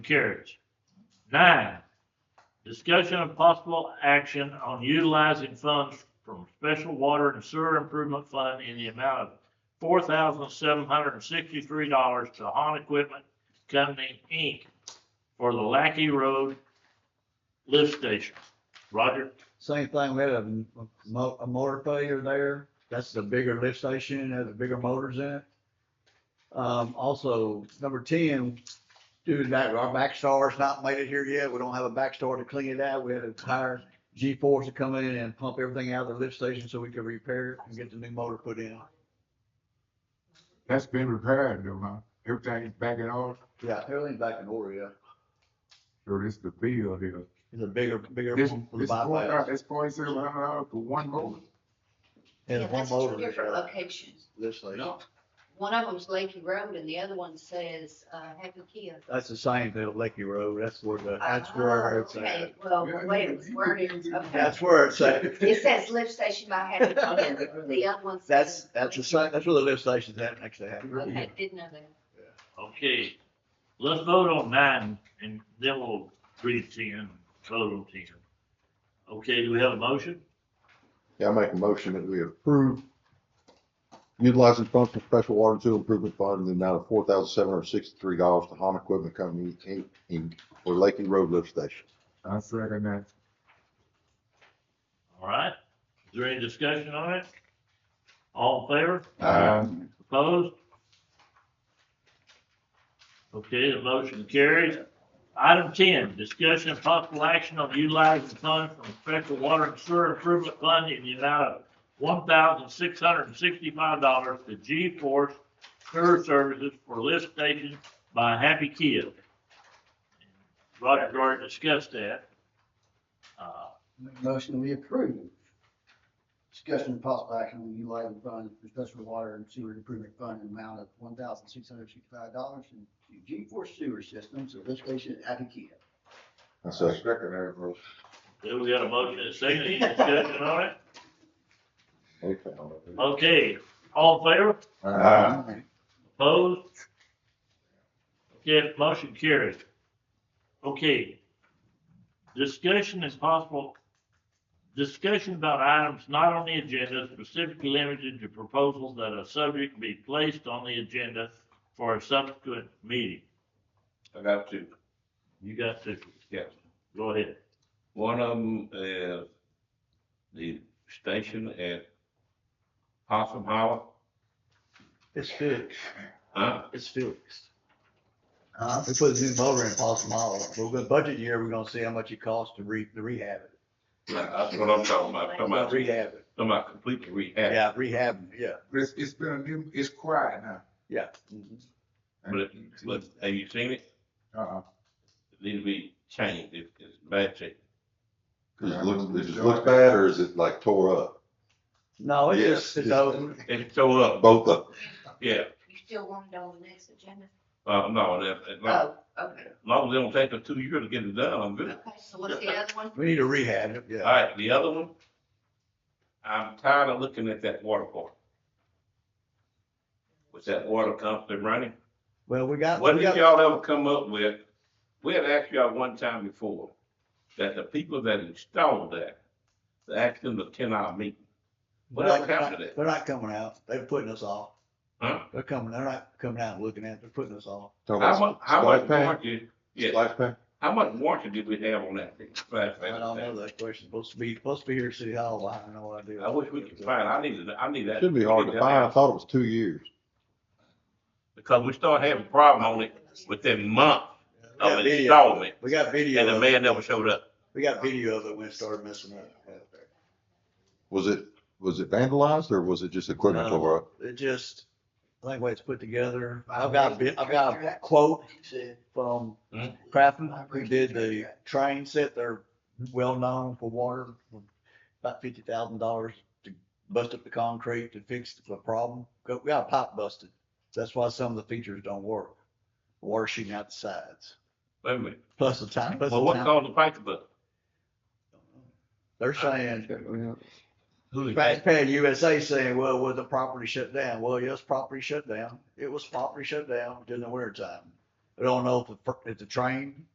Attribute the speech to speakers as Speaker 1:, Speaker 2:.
Speaker 1: Carries. Nine, discussion of possible action on utilizing funds from Special Water and Sewer Improvement Fund in the amount of four thousand seven hundred and sixty-three dollars to Han Equipment Company, Inc. for the Lackey Road lift station. Roger,
Speaker 2: Same thing, we had a, mo- a motor failure there. That's the bigger lift station, it has the bigger motors in it. Um, also, number ten, due to that, our backstar's not made it here yet. We don't have a backstar to clean it out. We had to hire G force to come in and pump everything out of the lift station so we could repair it and get the new motor put in.
Speaker 3: That's been repaired though, huh? Everything's back in order,
Speaker 2: Yeah, everything's back in order, yeah.
Speaker 3: so this the bill here.
Speaker 2: It's a bigger, bigger
Speaker 3: This,
Speaker 2: one for the
Speaker 3: this four,
Speaker 2: bypass.
Speaker 3: it's forty-seven hundred dollars uh, for one motor.
Speaker 2: And
Speaker 4: Yeah,
Speaker 2: one
Speaker 4: that's
Speaker 2: motor.
Speaker 4: two different locations.
Speaker 2: Lift station.
Speaker 4: One of them's Lakey Road and the other one says, uh, Happy Kia.
Speaker 2: That's the same thing, Lakey Road. That's where the, that's where it's at.
Speaker 4: Ah, Oh, Okay, Well,
Speaker 3: Yeah,
Speaker 4: wait,
Speaker 3: you-
Speaker 4: it's
Speaker 3: you-
Speaker 4: worded, okay.
Speaker 2: That's where it's at.
Speaker 4: It says lift station by Happy Kia, the other one
Speaker 2: That's,
Speaker 4: says.
Speaker 2: that's the site, that's where the lift station's at, next to that.
Speaker 4: Okay, didn't know that.
Speaker 1: okay, let's vote on nine and then we'll read ten, total ten. Okay, do we have a motion?
Speaker 5: Yeah, I make a motion that we approve utilizing funds from special water and sewer improvement fund in the amount of four thousand seven hundred sixty-three dollars to Han Equipment Company, Inc., Inc., for Lakey Road Lift Station.
Speaker 3: I second that.
Speaker 1: All right, is there any discussion on it? All in favor,
Speaker 3: Uh,
Speaker 1: opposed? Okay, the motion carries. Item ten, discussion and possible action on utilizing funds from special water and sewer improvement fund in the amount of one thousand six hundred and sixty-five dollars to G Force Sewer Services for lift station by Happy Kid. Roger already discussed that. Uh,
Speaker 6: Make a Motion we approve. Discussion and possible action on utilizing funds for special water and sewer improvement fund in amount of one thousand six hundred sixty-five dollars and G four sewer systems at lift station at Appikia.
Speaker 5: I second that, bro.
Speaker 1: Okay, we got a motion and a second, any discussion on it? Okay, all in favor,
Speaker 3: uh,
Speaker 1: opposed? Okay, motion carries. Okay. Discussion is possible, discussion about items not on the agenda specifically limited to proposals that a subject be placed on the agenda for a subsequent meeting.
Speaker 7: I got two.
Speaker 1: You got to,
Speaker 7: Yes.
Speaker 1: go ahead.
Speaker 7: One of them is the station at Possum Hollow.
Speaker 2: It's fixed,
Speaker 7: Huh?
Speaker 2: it's fixed. We put a new motor in Possum Hollow. We're gonna budget year, we're gonna see how much it costs to re, to rehab it.
Speaker 7: That's what I'm talking about. Talking
Speaker 2: Well,
Speaker 7: about, talking
Speaker 2: Rehab it,
Speaker 7: about completely rehab.
Speaker 2: yeah, rehab, it, yeah,
Speaker 3: but it's, it's been a new, it's quiet now.
Speaker 2: yeah.
Speaker 7: But, it- but have you seen it?
Speaker 3: Uh-uh.
Speaker 7: It needs to be changed. It- It's bad shape.
Speaker 5: Does it look, does it look bad or is it like tore up?
Speaker 2: No, it's
Speaker 5: Yes,
Speaker 2: just, it's
Speaker 5: it's-
Speaker 2: over.
Speaker 7: It's tore up.
Speaker 5: Both of them.
Speaker 7: Yeah.
Speaker 4: You still want it on the next agenda?
Speaker 7: Uh, no, that, that, no.
Speaker 4: Oh, okay.
Speaker 7: As long as it don't take us two years to get it done, I'm good.
Speaker 4: Okay, so what's the other one?
Speaker 2: We need to rehab it,
Speaker 7: All
Speaker 2: yeah.
Speaker 7: right, the other one. I'm tired of looking at that water park. With that water constantly running.
Speaker 2: Well, we got,
Speaker 7: What
Speaker 2: we
Speaker 7: did
Speaker 2: got,
Speaker 7: y'all ever come up with? We had asked y'all one time before, that the people that installed that, they asked them to attend our meeting. What
Speaker 2: No,
Speaker 7: else
Speaker 2: they're
Speaker 7: happened
Speaker 2: not,
Speaker 7: to that?
Speaker 2: they're not coming out. They're putting us off.
Speaker 7: Huh?
Speaker 2: They're coming, they're not coming out and looking at, it. they're putting us off.
Speaker 5: Talking
Speaker 7: How much,
Speaker 5: about
Speaker 7: how much
Speaker 5: splash pad?
Speaker 7: warranty, yeah,
Speaker 5: Splash pad?
Speaker 7: how much warranty did we have on that thing? Splash
Speaker 2: I
Speaker 7: pad?
Speaker 2: don't know that question, supposed to be, supposed to be here at City Hall, I have no idea.
Speaker 7: I wish we could find, I need, to- I need that.
Speaker 5: Should be hard to find. I thought it was two years.
Speaker 7: Because we started having a problem on it within month
Speaker 2: We got
Speaker 7: of
Speaker 2: video.
Speaker 7: installment,
Speaker 2: We got
Speaker 7: and
Speaker 2: video,
Speaker 7: the
Speaker 2: of it.
Speaker 7: man never showed up.
Speaker 2: we got video of it when it started messing up.
Speaker 5: Was it, was it vandalized or was it just equipment
Speaker 2: No.
Speaker 5: tore up?
Speaker 2: It just, I think the way it's put together, I've got a bit, I've got a quote from
Speaker 7: Hmm?
Speaker 2: Craftman, who did the train set, they're well-known for water, about fifty thousand dollars to bust up the concrete to fix the problem. We got a pipe busted, that's why some of the features don't work, water shooting out the sides.
Speaker 7: Wait a minute,
Speaker 2: Plus the time, plus
Speaker 7: well,
Speaker 2: the
Speaker 7: what
Speaker 2: time.
Speaker 7: caused the pipe bust?
Speaker 2: They're saying,
Speaker 7: Who did
Speaker 2: Pat Pat USA saying, well, was the property shut down? Well, yes, property shut down. It was property shut down during the winter time. We don't know if the, fir- if the train